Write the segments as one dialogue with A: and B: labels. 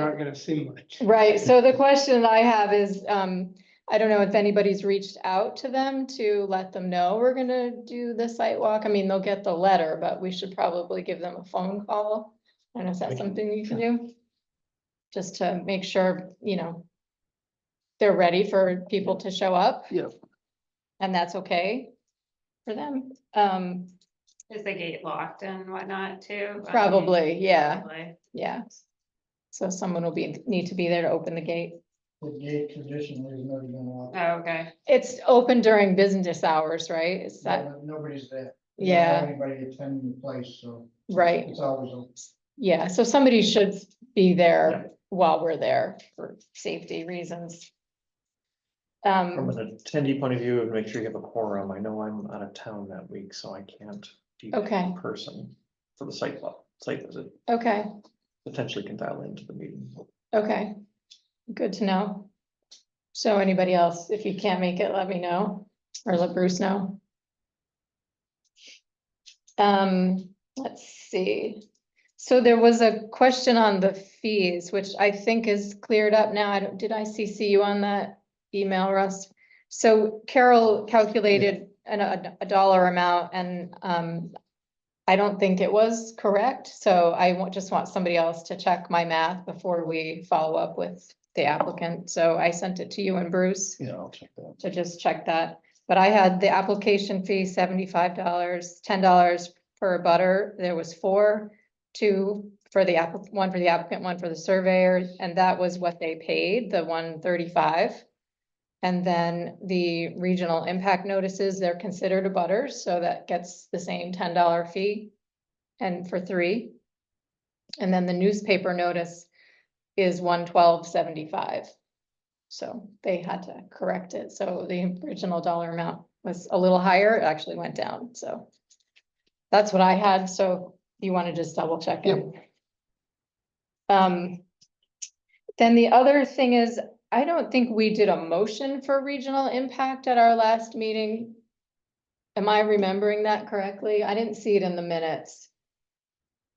A: aren't gonna see much.
B: Right, so the question I have is, um, I don't know if anybody's reached out to them to let them know we're gonna do the site walk. I mean, they'll get the letter, but we should probably give them a phone call. I don't know if that's something you can do. Just to make sure, you know, they're ready for people to show up.
A: Yeah.
B: And that's okay for them. Um,
C: Is the gate locked and whatnot too?
B: probably, yeah,
C: Probably.
B: yeah. So someone will be, need to be there to open the gate.
D: The gate traditionally has never been locked.
C: Oh, okay.
B: It's open during business hours, right? Is that,
D: No- Nobody's there. We don't have
B: yeah,
D: Anybody attending the place, so
B: right,
D: it's always open.
B: yeah, so somebody should be there while we're there for safety reasons.
E: From
B: Um,
E: an attendee point of view, and make sure you have a quorum. I know I'm out of town that week, so I can't do that
B: Okay.
E: in person for the site walk, site visit,
B: okay,
E: potentially can dial into the meeting.
B: okay, good to know. So anybody else, if you can't make it, let me know, or let Bruce know. Um, let's see, so there was a question on the fees, which I think is cleared up now, I don't, did I CC you on that email, Russ? So Carol calculated an, a a dollar amount and, um, I don't think it was correct, so I wa- just want somebody else to check my math before we follow up with the applicant, so I sent it to you and Bruce
E: Yeah, I'll check that.
B: to just check that. But I had the application fee seventy-five dollars, ten dollars per butter. There was four. Two for the app, one for the applicant, one for the surveyor, and that was what they paid, the one thirty-five. And then the regional impact notices, they're considered a butter, so that gets the same ten dollar fee. And for three. And then the newspaper notice is one twelve seventy-five. So they had to correct it, so the original dollar amount was a little higher, it actually went down, so. That's what I had, so you want to just double check it. Um. Then the other thing is, I don't think we did a motion for regional impact at our last meeting. Am I remembering that correctly? I didn't see it in the minutes.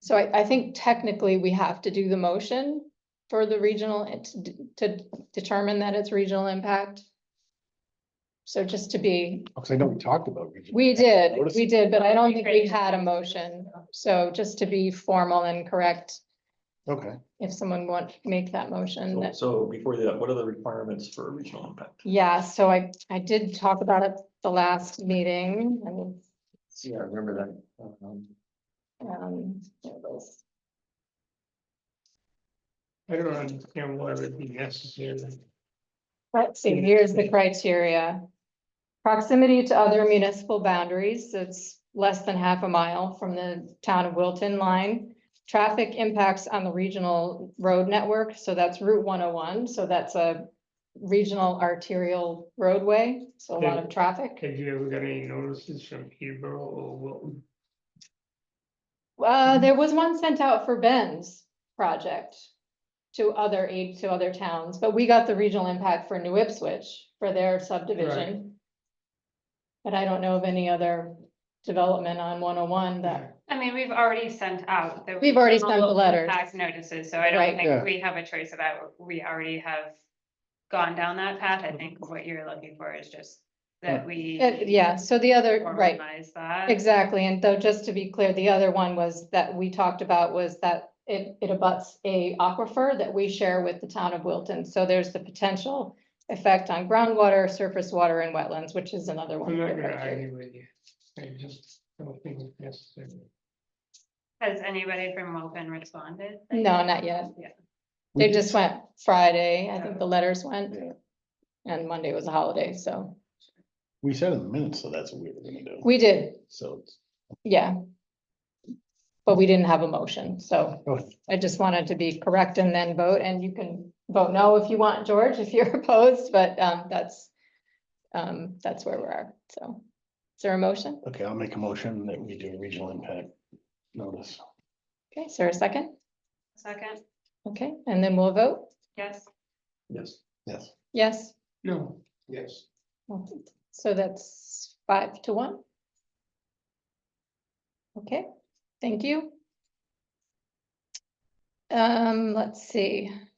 B: So I, I think technically we have to do the motion for the regional, to determine that it's regional impact. So just to be,
F: Because I know we talked about. regional
B: we
F: impact.
B: did,
F: I noticed-
B: we did, but I don't think we
C: Great.
B: had a motion. So just to be formal and correct,
F: Okay,
B: if someone want to make that motion, that,
E: So before that, what are the requirements for regional impact?
B: yeah, so I, I did talk about it the last meeting. I mean,
E: Yeah, I remember that. Um,
B: um, there it was.
A: I don't understand why it would be necessary.
B: Let's see, here's the criteria. Proximity to other municipal boundaries, it's less than half a mile from the town of Wilton line. Traffic impacts on the regional road network, so that's Route one oh one, so that's a regional arterial roadway, so a lot of traffic.
A: Have you ever got any notices from Hebrew or Wilton? Mm-hmm.
B: Uh, there was one sent out for Ben's project to other aid, to other towns, but we got the regional impact for New Ipswich for their subdivision. But I don't know of any other development on one oh one that,
C: I mean, we've already sent out. the
B: We've already sent the
C: local
B: letters.
C: impact Notices, so I don't
B: Right.
F: Yeah.
C: think we have a choice about, we already have gone down that path. I think what you're looking for is just that we.
B: Uh, Mm-hmm. yeah, so the other, right,
C: Formalize that.
B: exactly, and though, just to be clear, the other one was that we talked about was that it, it abuts a aquifer that we share with the town of Wilton, so there's the potential effect on groundwater, surface water and wetlands, which is another one.
A: I'm not
B: of the
A: gonna
B: criteria.
A: argue with you. I just don't think it's necessary.
C: Has anybody from Wilton responded?
B: No, not yet.
C: Yeah.
F: We
B: They
F: did
B: just went Friday, I think the letters went.
F: Yeah.
B: And Monday was a holiday, so
F: we said in the minutes, so that's what we were gonna do,
B: we did,
F: so. it's-
B: yeah. But we didn't have a motion, so
F: oh,
B: I just wanted to be correct and then vote, and you can vote no if you want, George, if you're opposed, but um, that's. Um, that's where we are, so. Is there a motion?
F: Okay, I'll make a motion that we do regional impact notice.
B: Okay, is there a second?
C: Second,
B: Okay, and then we'll vote,
C: yes,
E: Yes,
F: Yes,
B: yes,
A: No. Yes.
B: so that's five to one. Okay, thank you. Um, let's see,